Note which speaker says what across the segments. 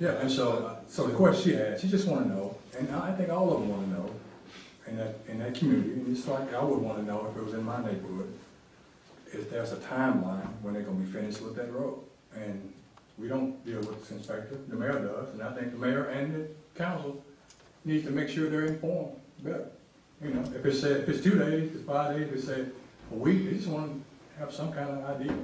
Speaker 1: Yeah, and so, so the question she had, she just wanna know, and I think all of them wanna know, in that, in that community, and just like I would wanna know if it was in my neighborhood, if there's a timeline when they're gonna be finished with that road. And we don't deal with this inspector, the mayor does, and I think the mayor and the council needs to make sure they're informed better. You know, if it's said, if it's two days, if it's five days, if it's said a week, they just wanna have some kind of idea.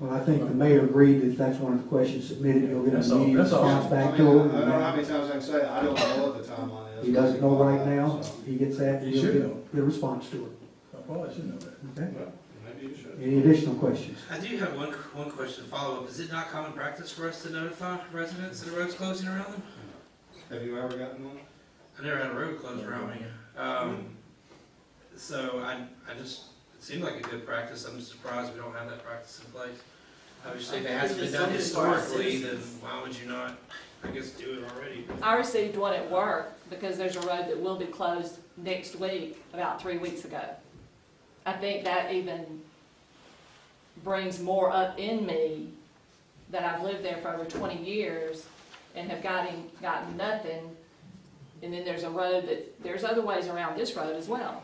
Speaker 2: Well, I think the mayor agreed that that's one of the questions submitted, he'll get
Speaker 1: That's
Speaker 2: a
Speaker 1: all-
Speaker 2: meeting
Speaker 1: that's all.
Speaker 2: response
Speaker 3: I mean,
Speaker 2: back
Speaker 3: I
Speaker 2: to
Speaker 3: don't know how
Speaker 2: him.
Speaker 3: many times I can say, it. I don't know what the timeline is.
Speaker 2: He doesn't know right now,
Speaker 3: So,
Speaker 2: he gets that,
Speaker 1: He
Speaker 2: he'll
Speaker 1: should
Speaker 2: get the response to it,
Speaker 1: I probably should know that.
Speaker 2: okay?
Speaker 3: well, Maybe you should.
Speaker 2: Any additional questions?
Speaker 4: I do have one, one question, follow-up. Is it not common practice for us to notify residents that a road's closing around them?
Speaker 3: Have you ever gotten one?
Speaker 4: I never had a road closed around me. Um, so I, I just, it seemed like a good practice. I'm surprised we don't have that practice in place. Obviously, if it hasn't been done historically, then why would you not, I guess, do it already?
Speaker 5: I received one at work because there's a road that will be closed next week, about three weeks ago. I think that even brings more up in me that I've lived there for over twenty years and have gotten, gotten nothing. And then there's a road that, there's other ways around this road as well.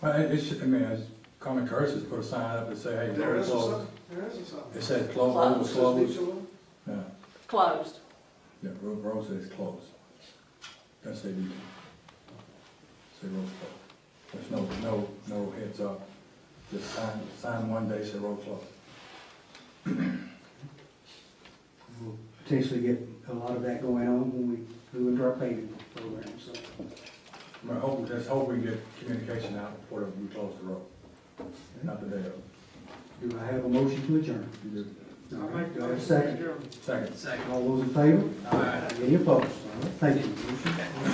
Speaker 1: Well, it it should, I mean, it's common courtesy to put a sign up and say, hey,
Speaker 3: There
Speaker 1: road
Speaker 3: is a
Speaker 1: closed.
Speaker 3: sign, there is a sign.
Speaker 1: It says closed, road was
Speaker 3: Says
Speaker 1: closed.
Speaker 3: mutual.
Speaker 1: Yeah,
Speaker 5: Closed.
Speaker 1: yeah, road, road says closed. That's say you. Say road closed. There's no, no, no heads up. Just sign, sign one day, say road closed.
Speaker 2: We'll Potentially get a lot of that going on when we go into our paving program, so.
Speaker 1: I mean, hope, just hope we get communication out before we close the road. Not the day of.
Speaker 2: Do I have a motion to adjourn?
Speaker 1: You do.
Speaker 2: Do
Speaker 3: I make the
Speaker 2: I have a
Speaker 3: motion.
Speaker 2: second?
Speaker 3: Adjourn.
Speaker 1: Second.
Speaker 4: Second.
Speaker 2: All those in favor?
Speaker 4: Aye.
Speaker 2: Any opposed? All right, Thank you. Motion-